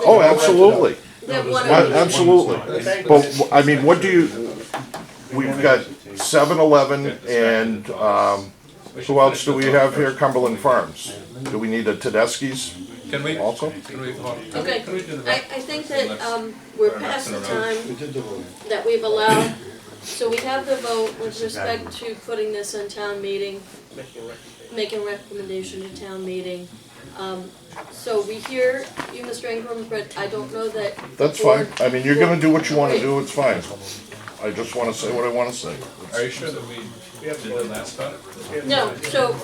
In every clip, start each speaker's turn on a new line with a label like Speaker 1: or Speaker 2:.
Speaker 1: Oh, absolutely,
Speaker 2: That one
Speaker 1: A-
Speaker 2: of each.
Speaker 1: absolutely. But, I mean, what do you, we've got seven eleven and, um, who else do we have here? Cumberland Farms. Do we need a Tedeschi's?
Speaker 3: Can we,
Speaker 1: Also?
Speaker 3: can we, hold on.
Speaker 2: Okay,
Speaker 3: Can we do the
Speaker 2: I,
Speaker 3: vote?
Speaker 2: I think that, um, we're past the time that we've allowed, so we have the vote with respect to putting this on town meeting, making recommendation to town meeting. Um, so we hear you, Mr. Ingram, but I don't know that.
Speaker 1: That's fine. I mean, you're gonna do what you wanna do, it's fine. I just wanna say what I wanna say.
Speaker 3: Are you sure that we did the last time?
Speaker 2: No, so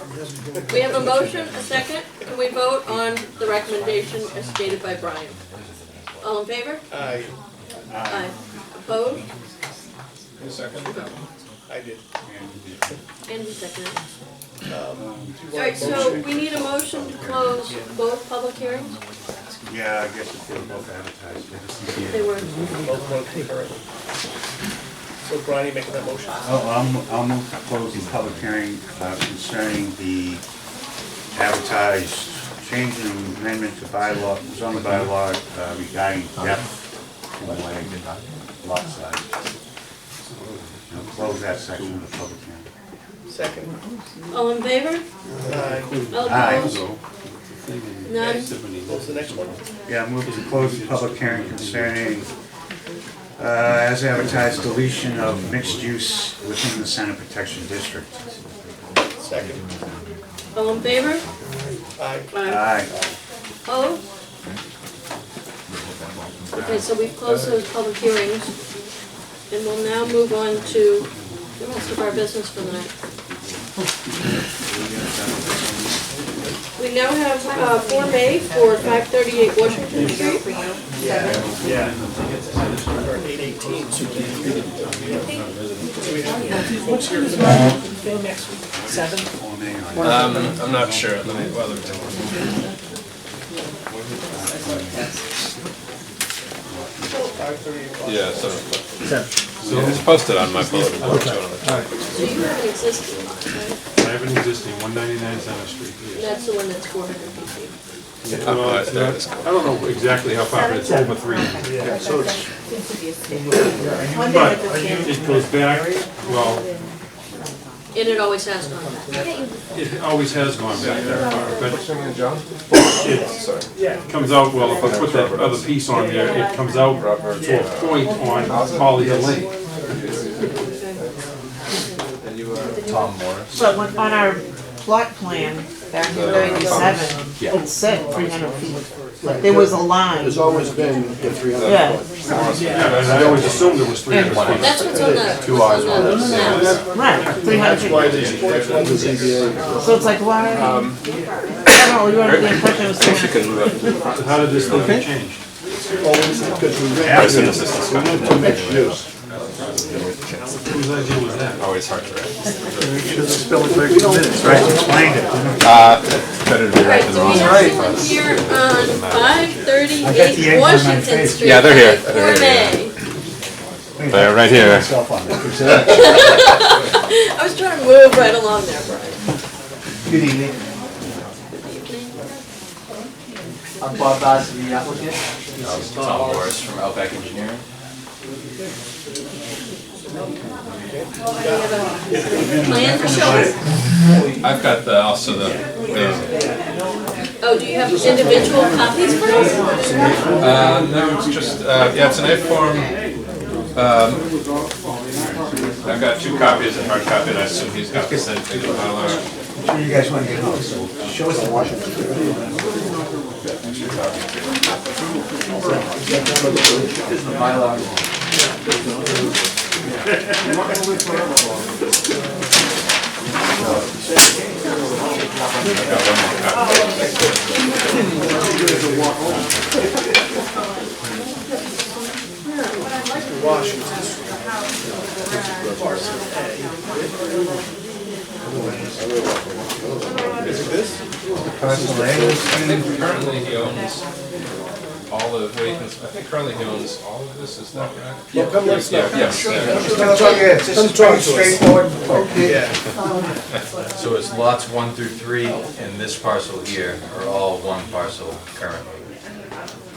Speaker 2: we have a motion, a second, and we vote on the recommendation as stated by Brian. All in favor?
Speaker 4: I,
Speaker 2: Aye. Opposed?
Speaker 3: Second?
Speaker 4: I did.
Speaker 2: And he seconded. Alright, so we need a motion to close both public hearings?
Speaker 4: Yeah, I guess if they were both advertised.
Speaker 2: They were,
Speaker 4: Both were concurrent. So Brian, you making that motion?
Speaker 5: I'll, I'll mo- I'll move to close the public hearing uh, concerning the advertised change and amendment to bylaw, zoning bylaw uh, regarding depth and length of lot size. Now close that section of the public hearing.
Speaker 4: Second.
Speaker 2: all in favor?
Speaker 4: Aye.
Speaker 2: All opposed?
Speaker 5: Aye.
Speaker 2: None?
Speaker 4: What's the next one?
Speaker 5: Yeah, move to close the public hearing concerning, uh, as advertised, deletion of mixed use within the center protection district.
Speaker 4: Second.
Speaker 2: All in favor?
Speaker 4: Aye.
Speaker 2: Aye.
Speaker 5: Aye.
Speaker 2: Opposed? Okay, so we've closed those public hearings, and we'll now move on to the rest of our business for the night. We now have, uh, Form A for five thirty-eight Washington Street.
Speaker 4: Or eight eighteen. So
Speaker 3: Um, I'm not sure. Let me, well, let me take a look.
Speaker 4: five thirty.
Speaker 3: Yeah, so. It's posted on my bulletin board.
Speaker 2: So
Speaker 3: so-
Speaker 2: you have an existing lot, right?
Speaker 6: I have an existing, one ninety-nine Center Street,
Speaker 2: And
Speaker 6: yes.
Speaker 2: that's the one that's four hundred feet.
Speaker 6: Well, it's not- I don't know exactly how far, but it's over three. But it goes back, well,
Speaker 2: And it always has gone back.
Speaker 6: it always has gone back that far, but it comes out, well, if I put that other piece on there, it comes out to a point on Holly Lane.
Speaker 7: But when, on our plot plan back in ninety-seven, it said three hundred feet. There was a line,
Speaker 8: There's always been the three hundred
Speaker 7: yeah,
Speaker 8: foot.
Speaker 6: Yeah, and I always assumed it was three hundred feet.
Speaker 2: That's what's on the, what's on the maps.
Speaker 7: right, three hundred feet.
Speaker 8: That's why Um, the ZBA,
Speaker 7: So it's like, why? I don't know, you were under the impression it was three hundred.
Speaker 6: So How did this thing change?
Speaker 8: because we went to, we went to mixed use.
Speaker 6: Whose idea was that?
Speaker 9: Always hard to write.
Speaker 5: Explained it.
Speaker 9: Better to be right
Speaker 2: Alright,
Speaker 9: than
Speaker 2: so we
Speaker 9: wrong.
Speaker 2: have someone here on five thirty-eight
Speaker 5: eggs on my
Speaker 2: Washington
Speaker 5: face.
Speaker 2: Street.
Speaker 9: Yeah, they're here.
Speaker 2: Form A.
Speaker 9: They're right here.
Speaker 5: Myself on it.
Speaker 2: I was trying to move right along there, Brian.
Speaker 5: Good evening.
Speaker 10: I'm Bob Bass, the applicant. This is Tom Morris from Outback Engineering.
Speaker 2: Plan for showing?
Speaker 3: I've got the, also the, the-
Speaker 2: Oh, do you have individual copies for us?
Speaker 3: uh, no, it's just, uh, yeah, it's an A-form. Um, I've got two copies, a hard copy, and I assume he's got the same thing. Mylar.
Speaker 5: Sure you guys wanna get home, so show us the Washington.
Speaker 10: This is the Mylar.
Speaker 3: I've got one more copy. I think currently he owns all of, wait, I think currently he owns all of this, is that right? Yeah, come let's go. Yes. yeah.
Speaker 5: straightforward.
Speaker 10: So it's lots one through three, and this parcel here are all one parcel currently.